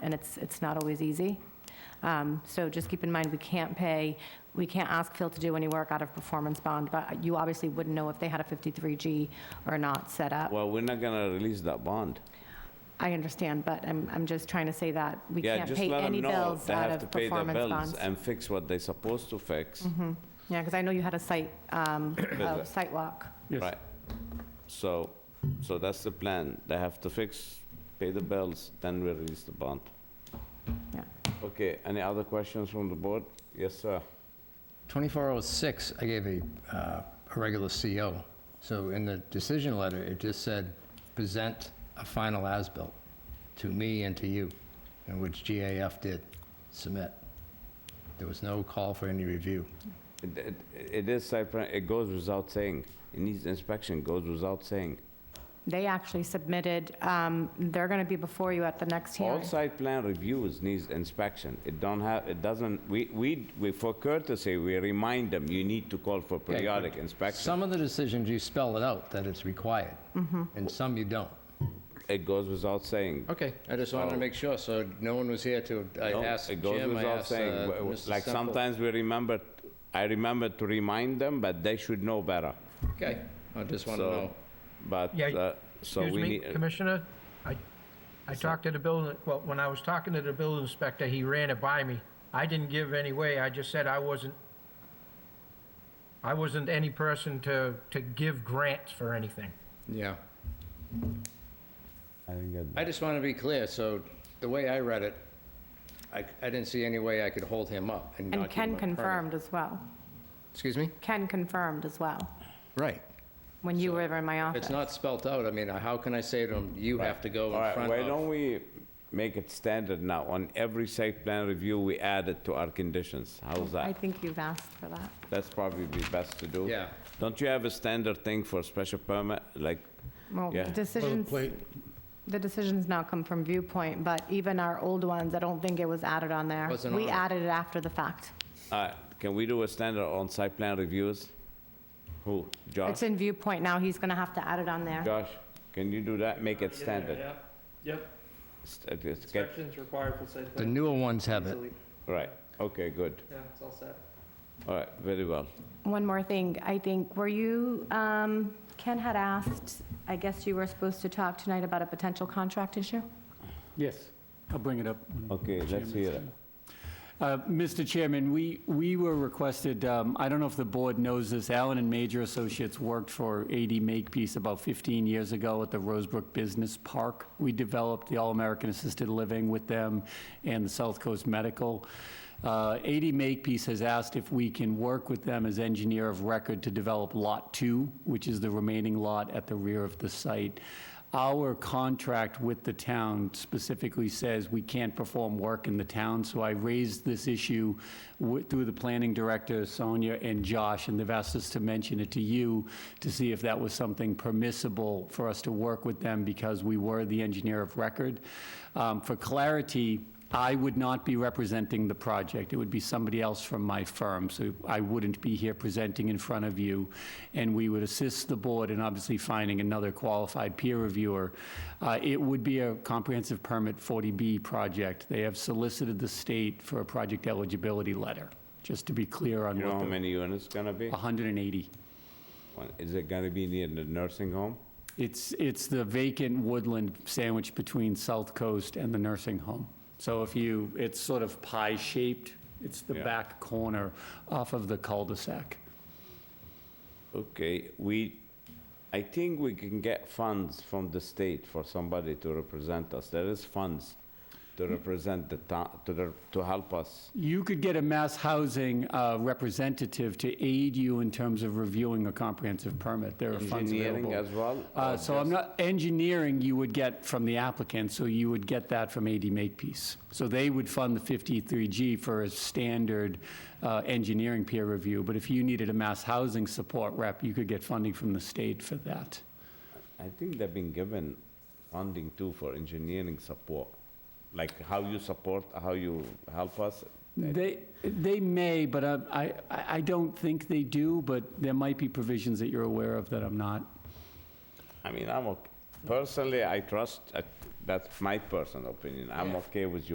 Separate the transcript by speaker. Speaker 1: and it's, it's not always easy. Um, So just keep in mind, we can't pay, we can't ask Phil to do any work out of performance bond, but you obviously wouldn't know if they had a 53G or not set up.
Speaker 2: Well, we're not gonna release that bond.
Speaker 1: I understand, but I'm, I'm just trying to say that we
Speaker 2: Yeah,
Speaker 1: can't
Speaker 2: just
Speaker 1: pay
Speaker 2: let
Speaker 1: any
Speaker 2: them know
Speaker 1: bills
Speaker 2: they
Speaker 1: out
Speaker 2: have to
Speaker 1: of
Speaker 2: pay their
Speaker 1: performance
Speaker 2: bills
Speaker 1: bonds. Mm-hmm.
Speaker 2: and fix what they're supposed to fix.
Speaker 1: Yeah, because I know you had a site, um, a
Speaker 2: Visit.
Speaker 1: site walk.
Speaker 2: Right. So, so that's the plan. They have to fix, pay the bills, then we release the bond.
Speaker 1: Yeah.
Speaker 2: Okay, any other questions from the board? Yes, sir.
Speaker 3: 2406, I gave a, uh, a regular CO. So in the decision letter, it just said, present a final as-built to me and to you, and which GAF did submit. There was no call for any review.
Speaker 2: It- It it is site plan, it goes without saying. It needs inspection, goes without saying.
Speaker 1: They actually submitted, um, they're going to be before you at the next
Speaker 2: All
Speaker 1: hearing.
Speaker 2: site plan reviews needs inspection. It don't have, it doesn't, we, we, we for courtesy, we remind them, you need to call for
Speaker 3: but
Speaker 2: periodic inspection.
Speaker 3: Some of the decisions, you spell it out that it's required, and some you don't.
Speaker 2: It goes without saying.
Speaker 3: Okay, I just wanted to make sure, so no one was here to, I
Speaker 2: No,
Speaker 3: asked
Speaker 2: It goes
Speaker 3: Jim, I
Speaker 2: without
Speaker 3: asked uh,
Speaker 2: saying. W- w-
Speaker 3: Mr.
Speaker 2: Like
Speaker 3: Semple.
Speaker 2: sometimes we remember, I remember to remind them, but they should know better.
Speaker 3: Okay, I just want to
Speaker 2: So,
Speaker 3: know.
Speaker 2: but,
Speaker 4: Yeah,
Speaker 2: uh, so
Speaker 4: Excuse
Speaker 2: we
Speaker 4: me,
Speaker 2: need,
Speaker 4: Commissioner, I, I talked to the building, well, when I was talking to the building inspector, he ran it by me. I didn't give any way, I just said I wasn't, I wasn't any person to, to give grants for anything.
Speaker 3: Yeah. I just want to be clear, so the way I read it, I, I didn't see any way I could hold him up and
Speaker 1: And
Speaker 3: not
Speaker 1: Ken
Speaker 3: give him a permit.
Speaker 1: confirmed as well.
Speaker 3: Excuse me?
Speaker 1: Ken confirmed as well,
Speaker 3: Right.
Speaker 1: when you were in my
Speaker 3: If it's
Speaker 1: office.
Speaker 3: not spelt out, I mean, how can I say to him, you have to go
Speaker 2: All
Speaker 3: in
Speaker 2: right,
Speaker 3: front
Speaker 2: why don't
Speaker 3: of?
Speaker 2: we make it standard now? On every site plan review, we add it to our conditions. How's
Speaker 1: I
Speaker 2: that?
Speaker 1: think you've asked for that.
Speaker 2: That's probably be best to do.
Speaker 3: Yeah.
Speaker 2: Don't you have a standard thing for special permit, like,
Speaker 1: Well,
Speaker 2: Yeah.
Speaker 1: decisions,
Speaker 5: Boilerplate.
Speaker 1: the decisions now come from viewpoint, but even our old ones, I don't think it was added on there.
Speaker 3: Wasn't
Speaker 1: We
Speaker 3: on it.
Speaker 1: added it after the fact.
Speaker 2: uh, can we do a standard on site plan reviews? Who,
Speaker 3: Ah.
Speaker 2: Josh?
Speaker 1: It's in viewpoint now, he's going to have to add it on there.
Speaker 2: Josh, can you do that? Make it standard.
Speaker 6: Yep, yep,
Speaker 2: St- uh, it's get-
Speaker 6: inspections required for site
Speaker 3: The
Speaker 6: plan.
Speaker 3: newer ones have it.
Speaker 6: Easily,
Speaker 2: Right, okay, good.
Speaker 6: yeah, it's all set.
Speaker 2: All right, very well.
Speaker 1: One more thing, I think, were you, um, Ken had asked, I guess you were supposed to talk tonight about a potential contract issue?
Speaker 5: Yes, I'll bring it up. when
Speaker 2: Okay,
Speaker 5: the
Speaker 2: let's
Speaker 5: chairman's
Speaker 2: hear it.
Speaker 5: done. Uh, Mr. Chairman, we, we were requested, um, I don't know if the board knows this, Allen and Major Associates worked for AD Makepeace about 15 years ago at the Rosebrook Business Park. We developed the All-American Assisted Living with them and the South Coast Medical. Uh, AD Makepeace has asked if we can work with them as engineer of record to develop Lot 2, which is the remaining lot at the rear of the site. Our contract with the town specifically says we can't perform work in the town, so I raised this issue wi- through the planning director, Sonia and Josh, and they've asked us to mention it to you to see if that was something permissible for us to work with them because we were the engineer of record. Um, For clarity, I would not be representing the project. It would be somebody else from my firm, so I wouldn't be here presenting in front of you. And we would assist the board in obviously finding another qualified peer reviewer. Uh, It would be a comprehensive permit 40B project. They have solicited the state for a project eligibility letter, just to be clear on
Speaker 2: You know
Speaker 5: what
Speaker 2: how
Speaker 5: the...
Speaker 2: many units gonna be?
Speaker 5: 180.
Speaker 2: One- Is it gonna be near the nursing home?
Speaker 5: It's, it's the vacant woodland sandwiched between South Coast and the nursing home. So if you, it's sort of pie-shaped, it's the
Speaker 2: Yeah.
Speaker 5: back corner off of the cul-de-sac.
Speaker 2: Okay, we, I think we can get funds from the state for somebody to represent us. There is funds to represent the town, to, the- to help us.
Speaker 5: You could get a mass housing uh, representative to aid you in terms of reviewing a comprehensive permit. There are funds
Speaker 2: Engineering
Speaker 5: available.
Speaker 2: as well,
Speaker 5: Uh,
Speaker 2: or
Speaker 5: So I'm
Speaker 2: just-
Speaker 5: not, engineering you would get from the applicant, so you would get that from AD Makepeace. So they would fund the 53G for a standard uh, engineering peer review, but if you needed a mass housing support rep, you could get funding from the state for that.
Speaker 2: I think they've been given funding too for engineering support. Like how you support, how you help us.
Speaker 5: They, they may, but uh, I, I I don't think they do, but there might be provisions that you're aware of that I'm not.
Speaker 2: I mean, I'm okay. Personally, I trust, uh, that's my personal opinion. I'm okay with you.